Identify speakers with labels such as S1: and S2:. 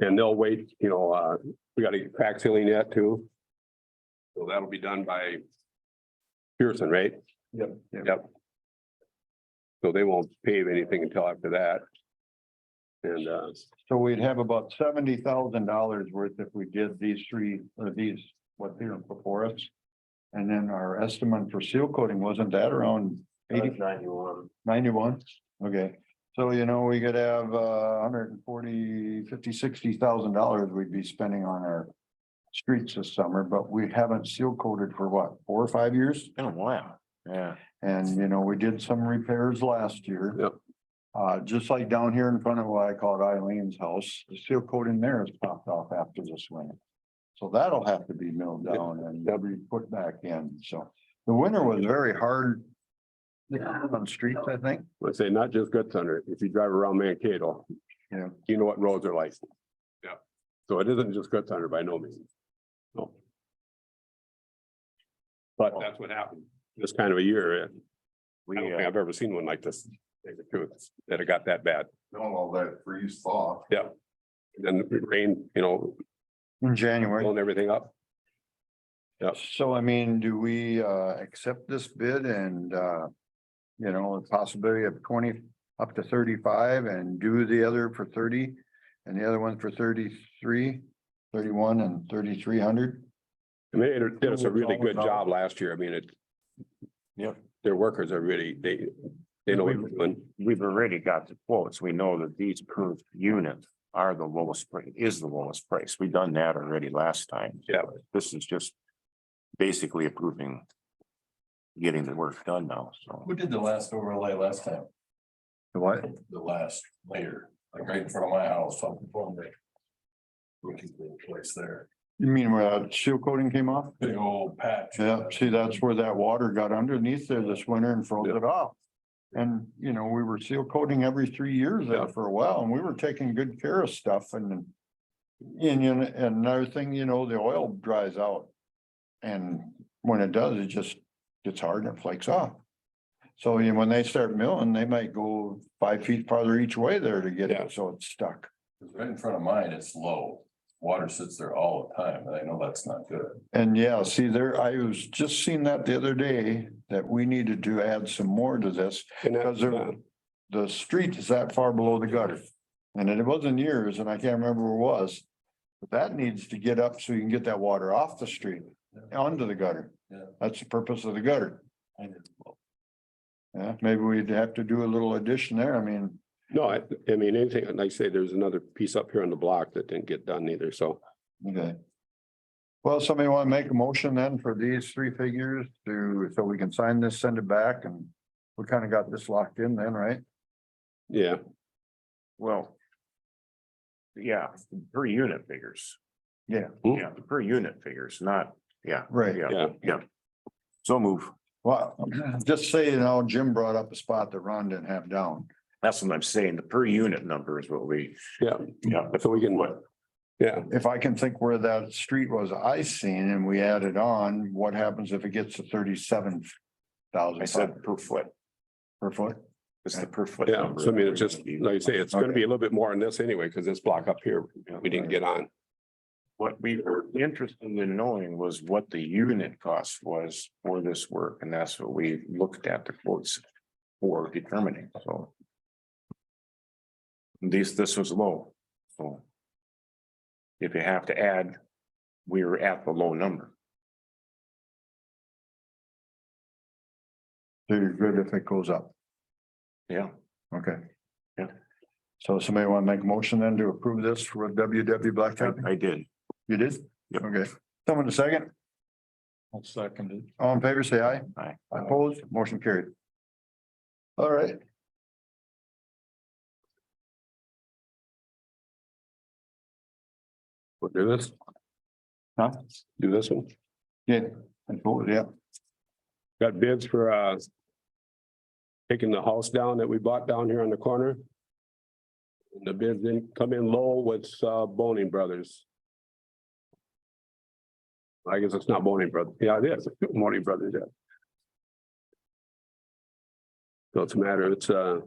S1: And they'll wait, you know, uh, we gotta get crack sealing that too. So that'll be done by Pearson, right?
S2: Yep.
S1: Yep. So they won't pave anything until after that. And, uh,
S2: So we'd have about seventy thousand dollars worth if we did these three, or these, what here before us. And then our estimate for seal coating, wasn't that around eighty,
S3: Ninety-one.
S2: ninety-one? Okay, so you know, we could have uh hundred and forty, fifty, sixty thousand dollars we'd be spending on our. Streets this summer, but we haven't seal coated for what, four or five years?
S3: Been a while. Yeah.
S2: And you know, we did some repairs last year.
S1: Yep.
S2: Uh, just like down here in front of what I call Eileen's house, the seal coat in there has popped off after this winter. So that'll have to be milled down and be put back in. So the winter was very hard. On streets, I think.
S1: let's say not just Good Thunder, if you drive around Mankato.
S2: Yeah.
S1: You know what roads are like. Yeah. So it isn't just Good Thunder by no means. No. But that's what happened. This kind of a year, eh,
S3: We,
S1: I don't
S3: uh,
S1: think I've ever seen one like this. to tell you the truth, That it got that bad.
S2: All that freeze thaw.
S1: Then the rain, you know,
S2: In January.
S1: blowing everything up.
S2: So I mean, do we uh accept this bid and uh, you know, the possibility of twenty up to thirty-five and do the other for thirty? And the other one for 33, 31, and thirty-three hundred?
S1: I mean, it did us a really good
S2: Always
S1: job last year. I mean, it.
S3: Yeah.
S1: Their workers are really, they, they know what they're doing.
S3: we've already got the quotes. We know that these per unit are the lowest price, is the lowest price. We've done that already last time.
S1: Yeah.
S3: This is just basically approving getting the work done now, so.
S4: Who did the last overlay last time?
S2: What?
S4: The last layer, like right in front of my house, up in front of me. Looking for a place there,
S2: You mean where that seal coating came off?
S4: big old patch.
S2: Yeah, see, that's where that water got underneath there this winter and froze it off. And, you know, we were seal coating every three years there for a while and we were taking good care of stuff and. And, you know, and another thing, you know, the oil dries out. And when it does, it just gets hard and it flakes off. So you know, when they start milling, they might go five feet farther each way there to get
S1: Yeah.
S2: it, so it's stuck.
S4: Right in front of mine, it's low. Water sits there all the time, and I know that's not good.
S2: And yeah, see there, I was just seeing that the other day that we needed to add some more to this.
S1: And that- uh,
S2: Because they're- the street is that far below the gutter. And it wasn't years, and I can't remember where it was. But that needs to get up so you can get that water off the street, onto the gutter.
S4: Yeah.
S2: That's the purpose of the gutter.
S4: I didn't look.
S2: Yeah, maybe we'd have to do a little addition there. I mean,
S1: No, I, I mean, anything, like I say, there's another piece up here on the block that didn't get done either, so.
S2: okay. Well, somebody want to make a motion then for these three figures to, so we can sign this, send it back, and we kind of got this locked in then, right?
S1: Yeah,
S3: Well. Yeah, per unit figures.
S2: Yeah.
S3: Yeah, the per unit figures, not, yeah.
S2: Right.
S3: Yeah,
S1: yeah,
S3: so move.
S2: Well, just say, you know, Jim brought up a spot that Ron didn't have down.
S3: That's what I'm saying. The per unit number is what we,
S1: yeah,
S3: yeah,
S1: so we can, yeah,
S2: if I can think where that street was I seen and we added on, what happens if it gets to thirty-seven
S3: I
S2: thousand
S3: said per foot.
S2: per foot?
S3: It's the per foot.
S1: yeah,
S3: number
S1: so I mean, it's
S3: that
S1: just,
S3: we
S1: like you say, it's gonna be a little bit more on this anyway, because this block up here, we didn't get on.
S3: What we were interested in knowing was what the unit cost was for this work, and that's what we looked at the quotes for determining, so. These, this was low, so. If you have to add, we were at the low number.
S2: So you're good if it goes up,
S3: Yeah,
S2: okay?
S3: Yeah.
S2: So somebody want to make a motion then to approve this for WW
S3: I,
S2: Blacktop?
S3: I did.
S2: You did?
S3: Yep.
S2: Okay, someone a second?
S4: I'll second it.
S2: All in favor, say aye.
S3: Aye.
S2: Opposed, motion carried. All right.
S1: We'll do this.
S2: Huh?
S1: Do this one.
S2: Yeah. I voted, Yeah,
S1: Got bids for, uh, taking the house down that we bought down here on the corner. And The bids didn't come in low with, uh, Boning Brothers. I guess it's not Boning Brothers. Yeah, it is. Boning Brothers, yeah. So it's a matter, it's, uh,